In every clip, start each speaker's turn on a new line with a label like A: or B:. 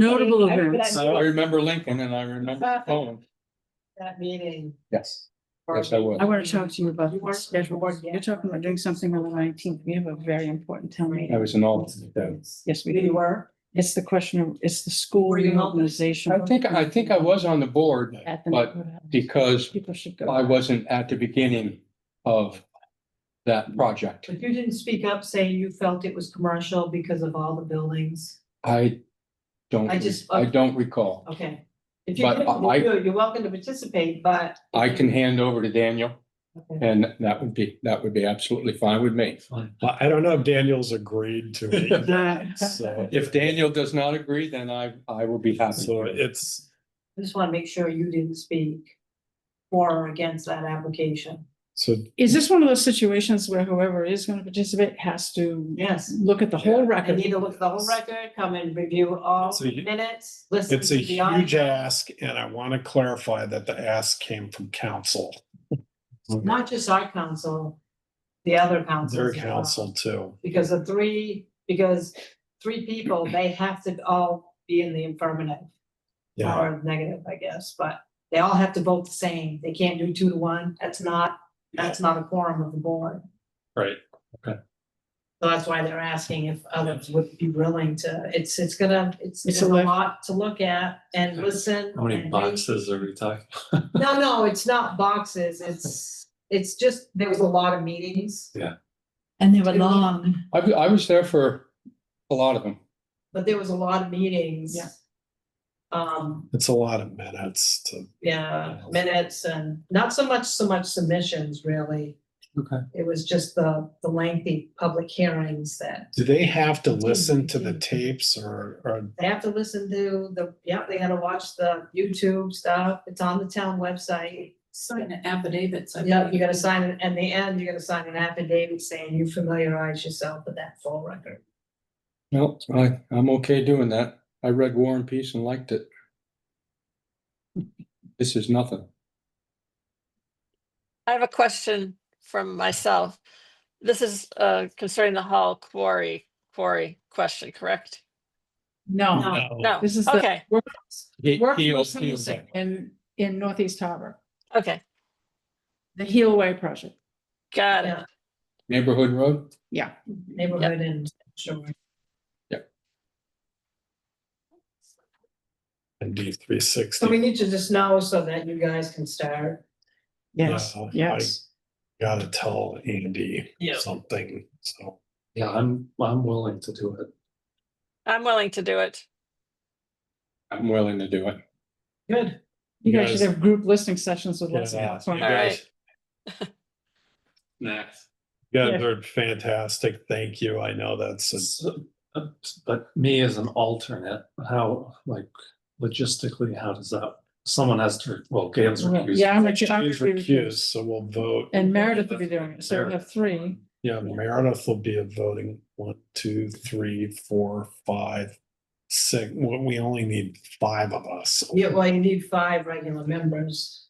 A: Notable
B: I- but I-
A: events.
C: I I remember Lincoln and I remember Poland.
B: that meeting.
C: Yes. Yes, I was.
A: I want to talk to you about
B: You
A: the
B: weren't-
A: schedule.
B: you weren't yet.
A: You're talking about doing something on the nineteenth. We have a very important town
C: I
A: meeting.
C: was an alternate then.
A: Yes, we
B: You
A: do.
B: were?
A: It's the question of, it's the school
B: Were you on it?
A: reorganization.
C: I think, I think I was on the board
A: At the.
C: but
A: neighborhood house.
C: because
A: People should go.
C: I wasn't at the beginning of that project.
B: But you didn't speak up saying you felt it was commercial because of all the buildings.
C: I don't,
B: I just-
A: uh,
C: I don't recall.
B: Okay. If you
C: But
B: couldn't,
C: I-
B: you're you're welcome to participate, but.
C: I can hand over to Daniel
B: Okay.
C: and that would be, that would be absolutely fine with me.
D: I I don't know if Daniel's agreed to it.
A: That-
D: So,
C: If Daniel does not agree, then I, I will be happy.
D: so it's,
B: I Just want to make sure you didn't speak for or against that application.
D: so
A: Is this one of those situations where whoever is going to participate has to
B: Yes.
A: look at the whole
B: I
A: record?
B: need to look at the whole record, come and review all
D: It's a hu-
B: minutes, listen.
D: it's a
B: to the audio.
D: huge ask and I want to clarify that the ask came from council,
B: Not just our council, the other councils.
D: their
B: as well.
D: council too.
B: Because the three, because three people, they have to all be in the affirmative.
D: Yeah,
B: or negative, I guess, but they all have to vote the same. They can't do two to one. That's not, that's not a quorum of the board.
D: right.
B: So that's why they're asking if others would be willing to, it's, it's gonna, it's,
A: It's
B: it's
A: a
B: a
A: life-
B: lot to look at and listen.
E: How many
B: and read.
E: boxes are we talking?
B: No, no, it's not boxes. It's, it's just, there was a lot of meetings,
A: And they
B: were long.
C: I, I was there for a lot of them.
B: but there was a lot of meetings.
A: Yeah.
B: Um,
D: It's a lot of minutes to,
B: yeah, minutes and not so much, so much submissions really.
E: Okay.
B: It was just the, the lengthy public hearings that
D: do they have to listen to the tapes or, or,
B: they have to listen to the, yeah, they gotta watch the YouTube stuff. It's on the town website.
F: Sign affidavits. I
B: Yeah, you
F: believe.
B: gotta sign, an- at the end, you gotta sign an affidavit saying you familiarize yourself with that full record.
C: No, I, I'm okay doing that. I read War and Peace and liked it. This is nothing.
G: I have a question from myself. This is uh, concerning the Hall quarry, quarry question, correct?
A: No,
G: No,
A: this is the
G: okay,
C: He-
A: workforce
C: he'll- he'll-
A: housing in, in Northeast Harbor,
G: okay,
A: the Healway project.
G: got it.
B: Yeah,
C: Neighborhood Road?
A: Yeah.
B: Neighborhood and, sure.
D: and D three
B: So we
D: sixty?
B: need to just know so that you guys can start.
A: Yes,
D: No, I-
A: yes.
D: Gotta tell Andy
B: Yeah.
D: something, so.
E: Yeah, I'm, I'm willing to do it.
G: I'm willing to do it.
C: I'm willing to do it.
B: Good.
A: You guys should have group listening sessions with lots of
D: Yeah.
A: lots of-
G: All right.
E: Next.
D: Yeah, they're fantastic. Thank you. I know that's, a-
E: uh, But me as an alternate, how, like, logistically, how does that, someone has to, well, Gail's recused.
A: Yeah, I'm a, I'm
D: she's recused, so we'll vote.
A: And Meredith will be doing it, so we have three.
D: Yeah, Meredith will be a voting one, two, three, four, five, six. Well, we only need five of us.
B: Yeah, well, you need five regular members.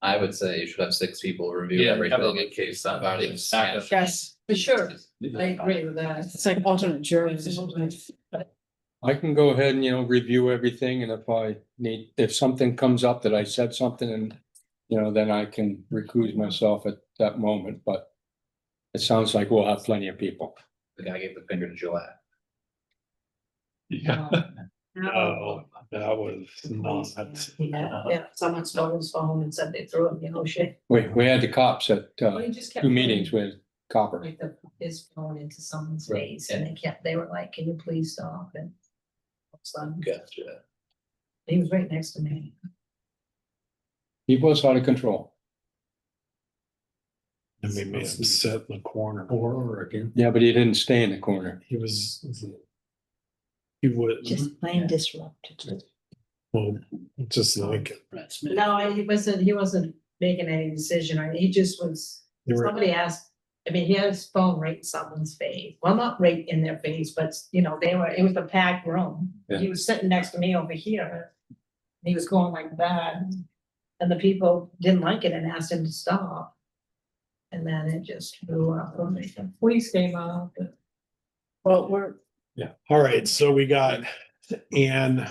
H: I would say you should have six people review
E: Yeah,
H: everything
E: probably.
H: in case somebody.
E: Backup.
A: Yes.
B: For sure. I agree with that.
A: It's like alternate juries.
C: I can go ahead and, you know, review everything and if I need, if something comes up that I said something and, you know, then I can recuse myself at that moment, but it sounds like we'll have plenty of people.
H: The guy gave the finger to Joanne.
E: Yeah.
B: Um,
D: No, Oh,
C: Oh,
D: that was not.
B: Yeah, yeah, someone stole his phone and said they threw it in the ocean.
C: We, we had the cops at,
B: Well,
C: uh,
B: he just kept
C: two meetings with Copper.
B: Like the, his phone into someone's
H: Right,
B: face and they kept, they were like, can you please stop and. all of a sudden,
H: Gotcha.
B: He was right next to me.
C: He was out of control.
D: And we made him sit in the corner.
E: For or against?
C: Yeah, but he didn't stay in the corner.
D: He was, he was,
F: plain disrupted.
D: well, just like,
B: No, he wasn't, he wasn't making any decision. I, he just was,
D: they were-
B: somebody asked, I mean, he had his phone right in someone's face. Well, not right in their face, but you know, they were, it was a packed room.
E: Yeah.
B: He was sitting next to me over here. and He was going like that. And the people didn't like it and asked him to stop. And then it just blew up. Police came out.
A: Well, we're,
D: yeah. All right, so we got And